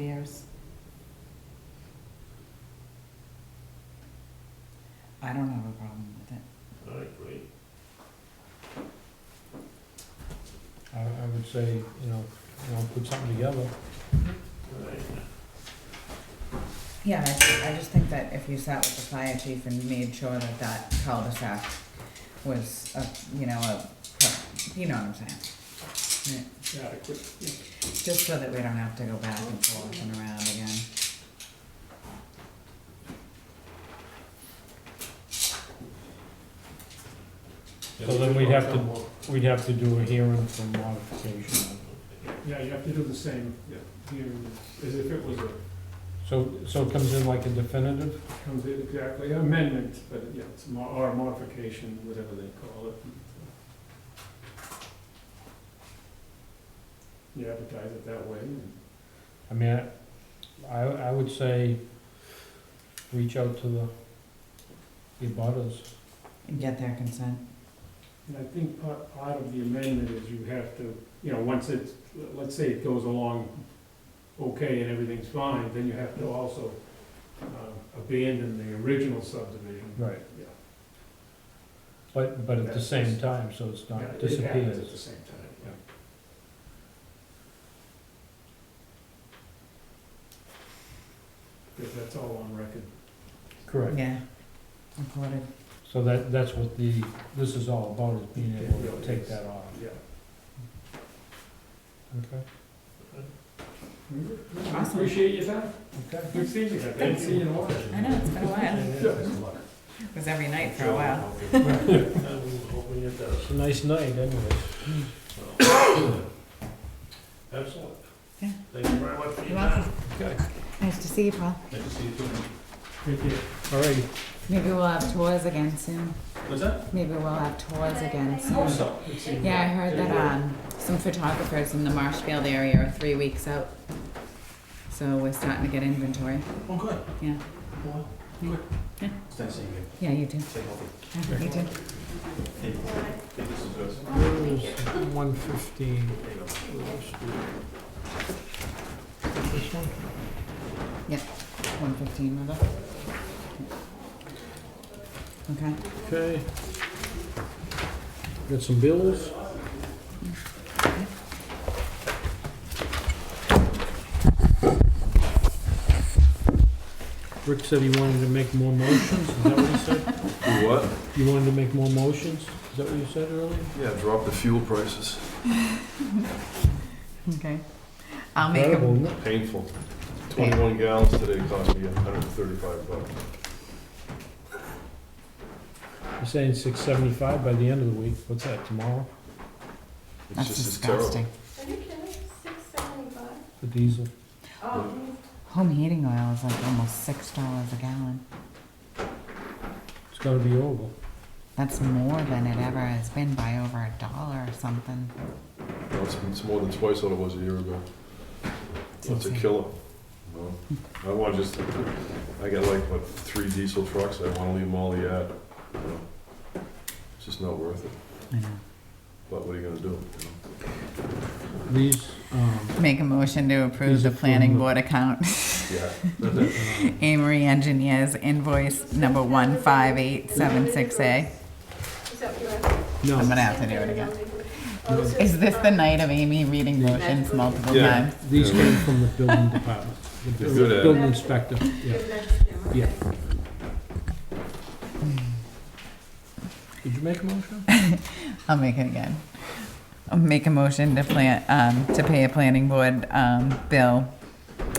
Affairs. I don't have a problem with it. All right, great. I, I would say, you know, you know, put something together. All right. Yeah, I, I just think that if you sat with the fire chief and made sure that that cul-de-sac was, a, you know, a, you know what I'm saying? Yeah, Yeah, I quit. Just so that we don't have to go back and forth and around again. So then we'd have to, we'd have to do a hearing for modification. Yeah, you have to do the same, yeah, here, as if it was a, So, so it comes in like a definitive? comes in exactly, amendment, but yeah, it's mo- or modification, whatever they call it. You advertise it that way, and I mean, I- I, I would say, reach out to the, the butters. And get their consent. and I think part, part of the amendment is you have to, you know, once it's, let's say it goes along okay and everything's fine, then you have to also uh, abandon the original subdivision. Right. Yeah. But, but at the same time, so it's Yeah, not It happens at the disappears. same time, yeah. Because that's all on record. Correct. Yeah. Recorded. So that, that's what the, this is all about, is being able to take that off. Yeah. Okay. Awesome. Appreciate your time. Okay. Good seeing you. Good seeing you in a while. I know, it's been a while. It was every night for a while. I'm hoping it does. It's a nice night anyways. So, Excellent. Yeah. Thank you very much for your You're welcome. time. Okay. Nice to see you, Paul. Nice to see you too. Take care. All righty. Maybe we'll have tours again soon. What's that? Maybe we'll have tours again Oh, soon. so. Yeah, I heard that um, some photographers in the Marshfield area are three weeks out. So we're starting to get inventory. Oh, good. Yeah. Well, good. Yeah. It's nice seeing you. Yeah, you too. Stay healthy. Yeah, You too. Hey, hey, this is good. One fifteen. There you go. This one? One fifteen, remember? Okay. Okay. Got some bills? Rick said he wanted to make more motions, is that what he said? Do what? You wanted to make more motions, is that what you said earlier? Yeah, drop the fuel prices. Okay. I'll make a, Incredible, isn't Painful. 21 gallons today cost me 135 bucks. it? You're saying six seventy-five by the end of the week, what's that, tomorrow, It's that's just, it's terrible. disgusting. Are you kidding? Six seventy-five? the diesel? Oh, Home heating oil is like almost six dollars a gallon. It's gotta be over. That's more than it ever has been by over a dollar or something. No, It's, it's more than twice what it was a year ago. It's a insane. killer. No. I want just, I got like, what, three diesel trucks. I want to leave them all yet. you know. It's just not worth it. I know. But what are you going to do? you know? These, um, Make a motion to approve These are the planning from the- board account. Yeah. Amory Engineers invoice number one five eight seven six A. is that what no. I'm you gonna have to do it again. Is this the night of Amy reading Right. motions multiple Yeah. times? These came from the building department, the They're good uh, at it. building inspector, yeah. Yeah. Did you make a motion? I'll make it again. I'll make a motion to plan, um, to pay a planning board, um, bill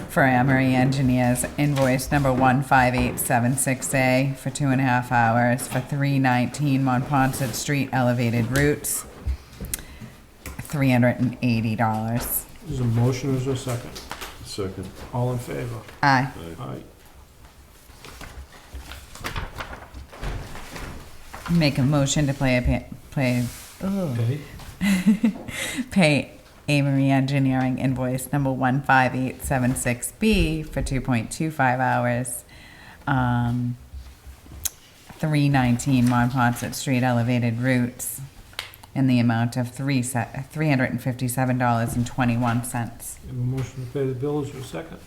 for Amory Engineers invoice number one five eight seven six A for two and a half hours for three nineteen Monpont Street elevated routes. Three hundred and eighty dollars. There's a motion, is there a second? Second. All in favor? Aye. Aye. Make a motion to play a pa- play, ugh, Okay, pay Amory Engineering invoice number one five eight seven six B for two point two five hours. Um, three nineteen Monpont Street elevated routes in the amount of three se- $357.21. Have a motion to pay the bills, your second?